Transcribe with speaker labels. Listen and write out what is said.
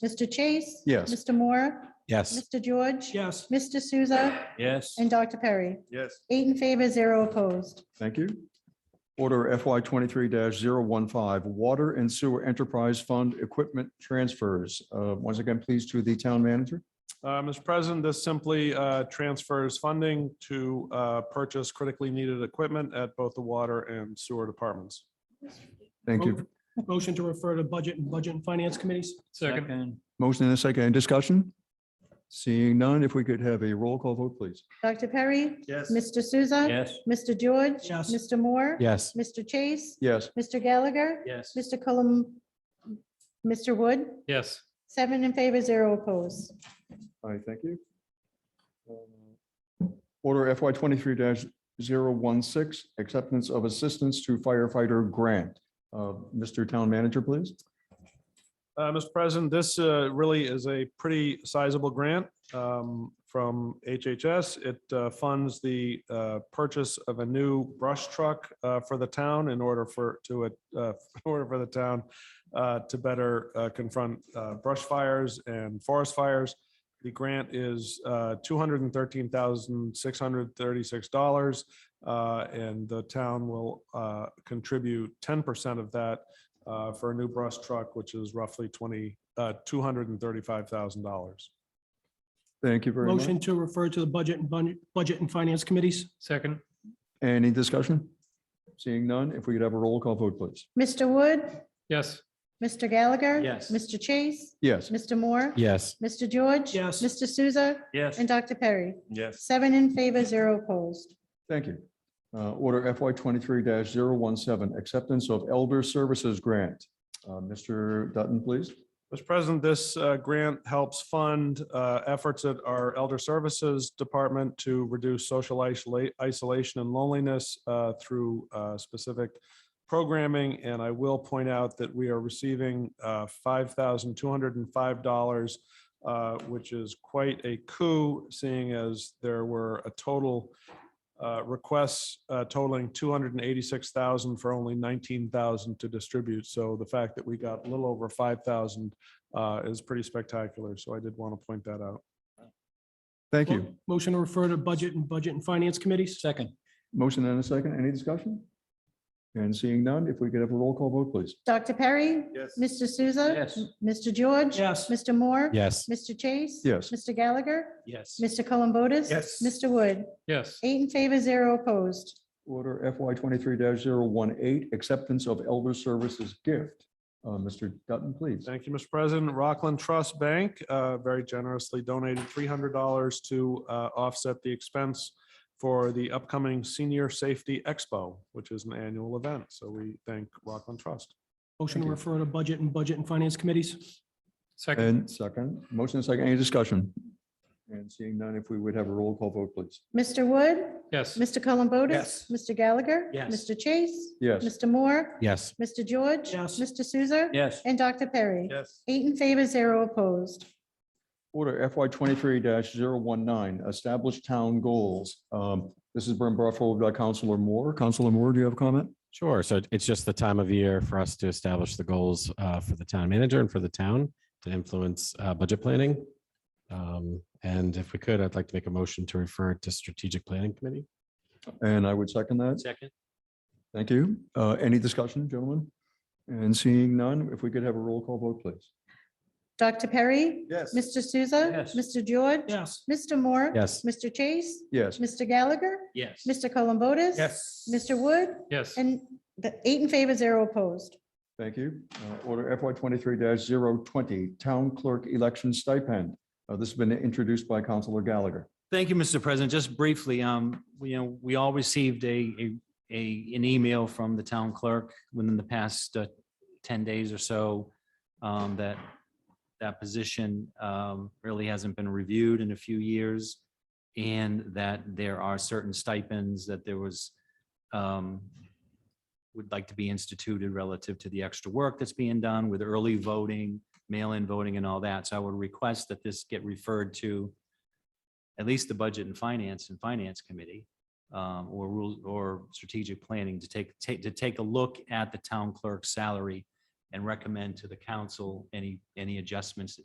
Speaker 1: Mr. Chase?
Speaker 2: Yes.
Speaker 1: Mr. Moore?
Speaker 3: Yes.
Speaker 1: Mr. George?
Speaker 4: Yes.
Speaker 1: Mr. Souza
Speaker 4: Yes.
Speaker 1: and Dr. Perry.
Speaker 2: Yes.
Speaker 1: Eight in favor, zero opposed.
Speaker 2: Thank you. Order FY twenty-three 15 Water and Sewer Enterprise Fund Equipment Transfers. Uh, Once again, please to the town manager.
Speaker 5: Uh, Mr. President, this simply uh, transfers funding to uh, purchase critically needed equipment at both the water and sewer departments.
Speaker 2: Thank you.
Speaker 4: Motion to refer to budget and budget and finance committees.
Speaker 6: Second.
Speaker 2: Motion and a second. Any discussion? Seeing none, if we could have a roll call vote, please.
Speaker 1: Dr. Perry?
Speaker 5: Yes.
Speaker 1: Mr. Souza?
Speaker 6: Yes.
Speaker 1: Mr. George?
Speaker 4: Yes.
Speaker 1: Mr. Moore?
Speaker 3: Yes.
Speaker 1: Mr. Chase?
Speaker 2: Yes.
Speaker 1: Mr. Gallagher?
Speaker 6: Yes.
Speaker 1: Mr. Cullum? Mr. Wood?
Speaker 6: Yes.
Speaker 1: Seven in favor, zero opposed.
Speaker 2: All right, thank you. Uh, Order FY twenty-three 16 Acceptance of Assistance to Firefighter Grant. Uh, Mr. Town Manager, please.
Speaker 5: Uh, Mr. President, this uh, really is a pretty sizable grant um, from HHS. It uh, funds the uh, purchase of a new brush truck uh, for the town in order for to it uh, in order for the town uh, to better uh, confront uh, brush fires and forest fires. The grant is uh, $213,636, uh, and the town will uh, contribute 10% of that uh, for a new brush truck, which is roughly twenty, uh, two hundred and thirty-five thousand dollars.
Speaker 2: Thank you very much.
Speaker 4: Motion to refer to the budget and bun- budget and finance committees.
Speaker 6: Second.
Speaker 2: Any discussion? Seeing none, if we could have a roll call vote, please.
Speaker 1: Mr. Wood?
Speaker 6: Yes.
Speaker 1: Mr. Gallagher?
Speaker 6: Yes.
Speaker 1: Mr. Chase?
Speaker 2: Yes,
Speaker 1: Mr. Moore?
Speaker 3: Yes.
Speaker 1: Mr. George?
Speaker 4: Yes.
Speaker 1: Mr. Souza
Speaker 6: Yes.
Speaker 1: and Dr. Perry.
Speaker 5: Yes.
Speaker 1: Seven in favor, zero opposed.
Speaker 2: thank you. Uh, Order FY twenty-three 17 Acceptance of Elder Services Grant. Uh, Mr. Dutton, please.
Speaker 5: Mr. President, this uh, grant helps fund uh, efforts at our Elder Services Department to reduce social isola- isolation and loneliness uh, through uh, specific programming. And I will point out that we are receiving uh, $5,205, uh, which is quite a coup, seeing as there were a total uh, requests uh, totaling 286,000 for only 19,000 to distribute. So the fact that we got a little over 5,000 uh, is pretty spectacular. So I did want to point that out.
Speaker 2: Thank you.
Speaker 4: Motion to refer to budget and budget and finance committees.
Speaker 6: Second.
Speaker 2: Motion and a second. Any discussion? And seeing none, if we could have a roll call vote, please.
Speaker 1: Dr. Perry?
Speaker 5: Yes.
Speaker 1: Mr. Souza?
Speaker 6: Yes.
Speaker 1: Mr. George?
Speaker 4: Yes.
Speaker 1: Mr. Moore?
Speaker 3: Yes.
Speaker 1: Mr. Chase?
Speaker 2: Yes.
Speaker 1: Mr. Gallagher?
Speaker 6: Yes.
Speaker 1: Mr. Columbotus?
Speaker 5: Yes.
Speaker 1: Mr. Wood?
Speaker 6: Yes.
Speaker 1: Eight in favor, zero opposed.
Speaker 2: Order FY twenty-three 18 Acceptance of Elder Services Gift. Uh, Mr. Dutton, please.
Speaker 5: Thank you, Mr. President. Rockland Trust Bank uh, very generously donated $300 to uh, offset the expense for the upcoming Senior Safety Expo, which is an annual event. So we thank Rockland Trust.
Speaker 4: Motion to
Speaker 2: Thank you.
Speaker 4: refer to budget and budget and finance committees.
Speaker 6: Second.
Speaker 2: And second, motion and second, any discussion? And seeing none, if we would have a roll call vote, please.
Speaker 1: Mr. Wood?
Speaker 6: Yes.
Speaker 1: Mr. Columbotus?
Speaker 6: Yes.
Speaker 1: Mr. Gallagher?
Speaker 6: Yes.
Speaker 1: Mr. Chase?
Speaker 2: Yes.
Speaker 1: Mr. Moore?
Speaker 3: Yes.
Speaker 1: Mr. George?
Speaker 4: Yes.
Speaker 1: Mr. Souza?
Speaker 6: Yes.
Speaker 1: And Dr. Perry.
Speaker 5: Yes.
Speaker 1: Eight in favor, zero opposed.
Speaker 2: Order FY twenty-three 19 establish town goals. Um, This is Brent Barfield, by Counselor Moore. Counselor Moore, do you have a comment?
Speaker 3: Sure. So it's just the time of year for us to establish the goals uh, for the town manager and for the town to influence uh, budget planning. Um, And if we could, I'd like to make a motion to refer to strategic planning committee.
Speaker 2: And I would second that.
Speaker 6: Second.
Speaker 2: Thank you. Uh, Any discussion, gentlemen? And seeing none, if we could have a roll call vote, please.
Speaker 1: Dr. Perry?
Speaker 5: Yes.
Speaker 1: Mr. Souza?
Speaker 6: Yes.
Speaker 1: Mr. George?
Speaker 4: Yes.
Speaker 1: Mr. Moore?
Speaker 3: Yes.
Speaker 1: Mr. Chase?
Speaker 2: Yes,
Speaker 1: Mr. Gallagher?
Speaker 6: Yes.
Speaker 1: Mr. Columbotus?
Speaker 6: Yes.
Speaker 1: Mr. Wood?
Speaker 6: Yes.
Speaker 1: And the eight in favor, zero opposed.
Speaker 2: thank you. Uh, Order FY twenty-three 20 town clerk election stipend. Uh, This has been introduced by Counselor Gallagher.
Speaker 7: Thank you, Mr. President. Just briefly, um, we, you know, we all received a, a, a, an email from the town clerk within the past uh, ten days or so. Um, that, that position, um, really hasn't been reviewed in a few years. And that there are certain stipends that there was, um, would like to be instituted relative to the extra work that's being done with early voting, mail-in voting and all that. So I would request that this get referred to at least the budget and finance and finance committee um, or rules or strategic planning to take, take, to take a look at the town clerk's salary and recommend to the council any, any adjustments that